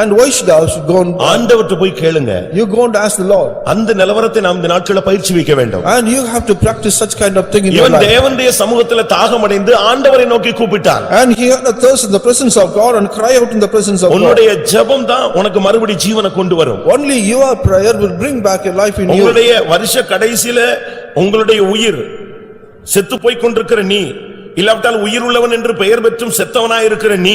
And why should I should go and, ஆண்டவர்ட்ட போய் கேளுங்க you go and ask the Lord. அந்த நிலவரத்தை நாம் இந்த நாட்கள பயிற்சி வைக்க வேண்டும் And you have to practice such kind of thing in your இவன் life. தேவனுடைய சமூகத்துல தாகமடைந்து ஆண்டவரை நோக்கி கூப்பிட்டான் And he had a thirst in the presence of God and cry out in the presence of God. உன்னுடைய ஜெபம் தான் உனக்கு மறுபடி ஜீவனை கொண்டு வரும் Only your prayer will bring back your life in you. உங்களுடைய வருஷ கடைசியில உங்களுடைய உயிர் செத்துப் போய்க் கொண்டிருக்கிற நீ இல்லாவிட்டால் உயிர் உள்ளவன் என்று பெயர் பெற்றும் செத்தவனாயிருக்கிற நீ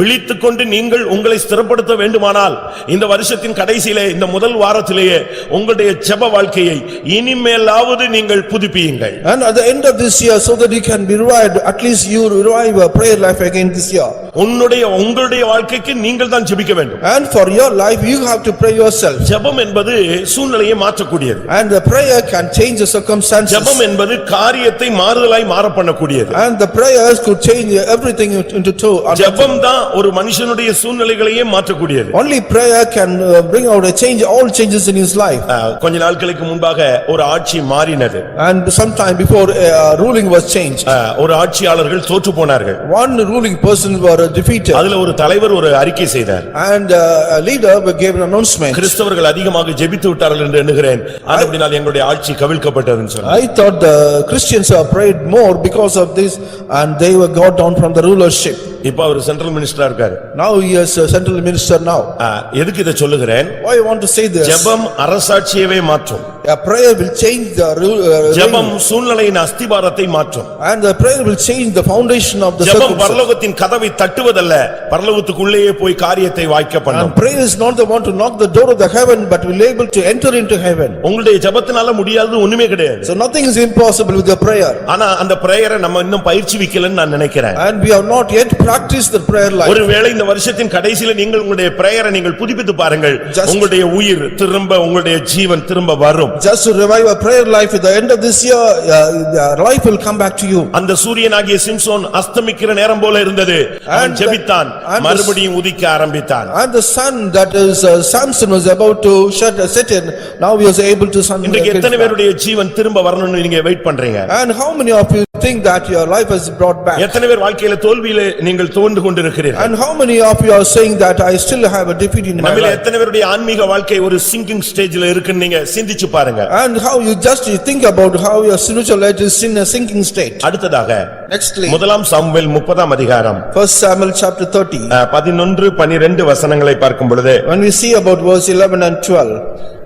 விழித்துக்கொண்டு நீங்கள் உங்களை ஸ்திரப்படுத்த வேண்டுமானால் இந்த வருஷத்தின் கடைசியிலே இந்த முதல் வாரத்திலேயே உங்களுடைய ஜெப வாழ்க்கையை இனிமேலாவது நீங்கள் புதுப்பியுங்கள் And at the end of this year, so that you can be revived, at least you revive your prayer life again this year. உன்னுடைய உங்களுடைய வாழ்க்கைக்கு நீங்கள் தான் ஜெபிக்க வேண்டும் And for your life, you have to pray yourself. ஜெபம் என்பது சூழ்நிலையை மாற்றக்கூடியது And the prayer can change the circumstances. ஜெபம் என்பது காரியத்தை மாறுதலாய் மாறப் பண்ணக்கூடியது And the prayers could change everything into two. And ஜெபம் தான் ஒரு மனுஷனுடைய சூழ்நிலைகளையே மாற்றக்கூடியது Only prayer can uh, bring out a change, all changes in his life. அஹ், கொஞ்ச நாட்களுக்கு முன்பாக ஒரு ஆட்சி மாறினது And sometime before uh, ruling was changed, அஹ், ஒரு ஆட்சியாளர்கள் தோற்று போனார்கள் one ruling person were defeated. அதுல ஒரு தலைவர் ஒரு அறிக்கை செய்தார் And uh, a leader gave an announcement. கிறிஸ்தவர்கள் அதிகமாக ஜெபித்து விட்டார்கள் என்று எண்ணுகிறேன் அப்படினால் எங்களுடைய ஆட்சி கவிழ்க்கப்பட்டதுன்னு சொன்னார் I thought the Christians have prayed more because of this and they were got down from the rulership. இப்ப அவர் சென்ட்ரல் மினிஸ்டரா இருக்காரு Now he is a central minister now. அஹ், எதுக்கு இதை சொல்லுகிறேன் Why you want to say this? ஜெபம் அரசாட்சியவே மாற்றும் A prayer will change the rule. uh, ஜெபம் சூழ்நிலையின் அஸ்திபாரத்தை மாற்றும் And the prayer will change the foundation of the ஜெபம் circumstances. பரலோகத்தின் கதவை தட்டுவதல்ல பரலோகத்துக்குள்ளேயே போய் காரியத்தை வாய்க்க பண்ணும் And prayer is not the one to knock the door of the heaven, but will able to enter into heaven. உங்களுடைய ஜெபத்தினால முடியாதது ஒண்ணுமே கிடையாது So nothing is impossible with the prayer. ஆனா அந்த பிரேயரை நம்ம இன்னும் பயிற்சி வைக்கலன்னு நான் நினைக்கிறேன் And we have not yet practiced the prayer life. ஒருவேளை இந்த வருஷத்தின் கடைசில நீங்கள் உங்களுடைய பிரேயரை நீங்கள் புதுப்பித்து பாருங்கள் Just- உங்களுடைய உயிர் திரும்ப உங்களுடைய ஜீவன் திரும்ப வரும் Just to revive a prayer life at the end of this year, uh, the life will come back to you. அந்த சூரியனாகிய சிம்சோன் அஸ்தமிக்கிற நேரம் போல இருந்தது அவன் And the- ஜெபித்தான் and the- மறுபடியும் உதிக்க ஆரம்பித்தான் And the sun that is uh, Samson was about to shut a set in, now he was able to sun. இன்றைக்கு எத்தனை பேருடைய ஜீவன் திரும்ப வரணும்னு நீங்க வெயிட் பண்றீங்க And how many of you think that your life has brought back? எத்தனை பேர் வாழ்க்கையில தோல்வியில நீங்கள் தோண்டு கொண்டிருக்கிறீர்கள் And how many of you are saying that I still have a defeat in my நம்மில life? எத்தனை பேருடைய ஆன்மீக வாழ்க்கை ஒரு சிங்கிங் ஸ்டேஜ்ல இருக்குன்னு நீங்க சிந்திச்சு பாருங்க And how you just you think about how your spiritual life is in a sinking state. அடுத்ததாக Nextly, முதலாம் சாமுவேல் முப்பதாம் அதிகாரம் first Samuel chapter thirty, அஹ், பதினொன்று பனிரெண்டு வசனங்களை பார்க்கும் பொழுது when we see about verse eleven and twelve.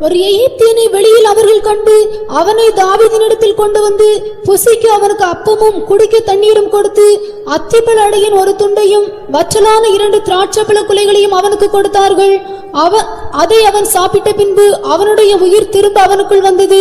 ஒரு எகிப்தியனை வெளியில் அவர்கள் கண்டு அவனை தாவீதினிடத்தில் கொண்டு வந்து புசிக்கு அவனுக்கு அப்பமும் குடிக்க தண்ணீரும் கொடுத்து அத்திப்பழ அடையின் ஒரு துண்டையும் வற்றலான இரண்டு திராட்சைப்பழ குலைகளையும் அவனுக்கு கொடுத்தார்கள் அவ அதை அவன் சாப்பிட்ட பின்பு அவனுடைய உயிர் திரும்ப அவனுக்குள் வந்தது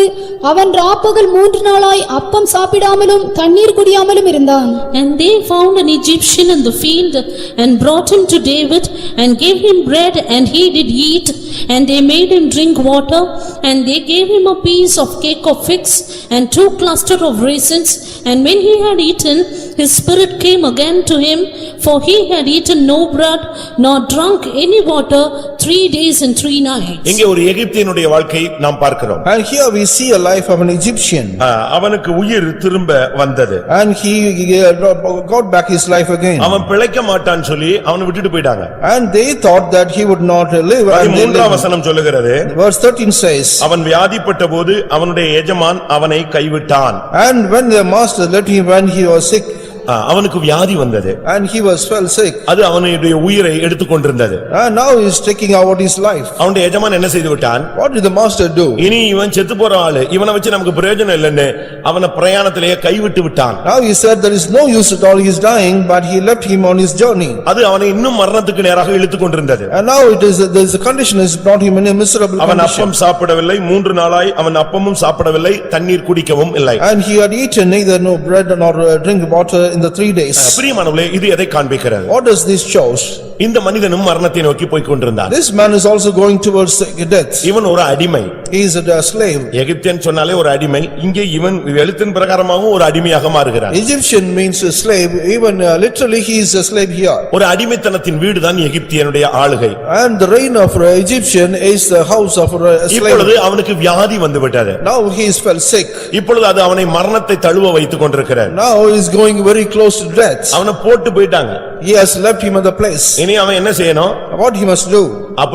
அவன் ராப்பகல் மூன்று நாளாய் அப்பம் சாப்பிடாமலும் தண்ணீர் குடியாமலும் இருந்தான் And they found an Egyptian in the field and brought him to David and gave him bread and he did eat and they made him drink water and they gave him a piece of cake of figs and two cluster of raisins and when he had eaten his spirit came again to him for he had eaten no bread nor drunk any water three days and three nights. இங்கே ஒரு எகிப்தியனுடைய வாழ்க்கை நாம் பார்க்கிறோம் And here we see a life of an Egyptian, அஹ், அவனுக்கு உயிர் திரும்ப வந்தது and he uh, got back his life again. அவன் பிழைக்க மாட்டான்னு சொல்லி அவனை விட்டுட்டு போயிட்டாங்க And they thought that he would not live. and they மூன்றாம் lived. வசனம் சொல்லுகிறது Verse thirteen says, அவன் வியாதிப்பட்ட போது அவனுடைய எஜமான் அவனை கைவிட்டான் And when the master let him when he was sick, அஹ், அவனுக்கு வியாதி வந்தது and he was fell sick, அது அவனுடைய உயிரை எடுத்துக்கொண்டிருந்தது and now he is taking out his life. அவனுடைய எஜமான் என்ன செய்து விட்டான் What did the master do? இனி இவன் செத்து போற ஆளு இவனை வச்சு நமக்கு பிரயோஜனம் இல்லைன்னு அவனை பிரயாணத்திலேயே கைவிட்டு விட்டான் Now he said there is no use at all, he is dying, but he left him on his journey. அது அவனை இன்னும் மரணத்துக்கு நேராக இழுத்துக் கொண்டிருந்தது And now it is, there is a condition has brought him in a miserable அவன் condition. அப்பம் சாப்பிடவில்லை மூன்று நாளாய் அவன் அப்பமும் சாப்பிடவில்லை தண்ணீர் குடிக்கவும் இல்லை And he had eaten neither no bread nor uh, drink water in the three days. பிரியமானவர்களே இது எதை காண்பிக்கிறது What does this shows? இந்த மனிதனும் மரணத்தை நோக்கி போய்க் கொண்டிருந்தான் This man is also going towards death. இவன் ஒரு அடிமை He is a slave. எகிப்தியன் சொன்னாலே ஒரு அடிமை இங்கே இவன் எழுத்தின் பிரகாரமாகவும் ஒரு அடிமையாக மாறுகிறான் Egyptian means a slave, even uh, literally he is a slave here. ஒரு அடிமைத்தனத்தின் வீடுதான் எகிப்தியனுடைய ஆளுகை And the reign of uh, Egyptian is the house of a இப்பொழுது slave. அவனுக்கு வியாதி வந்து விட்டது Now he is fell sick. இப்பொழுது அது அவனை மரணத்தை தழுவ வைத்துக் கொண்டிருக்கிறது Now he is going very close to death. அவனை போட்டு போயிட்டாங்க He has left him at the place. இனி அவன் என்ன செய்யணும் What he must do? அப்படி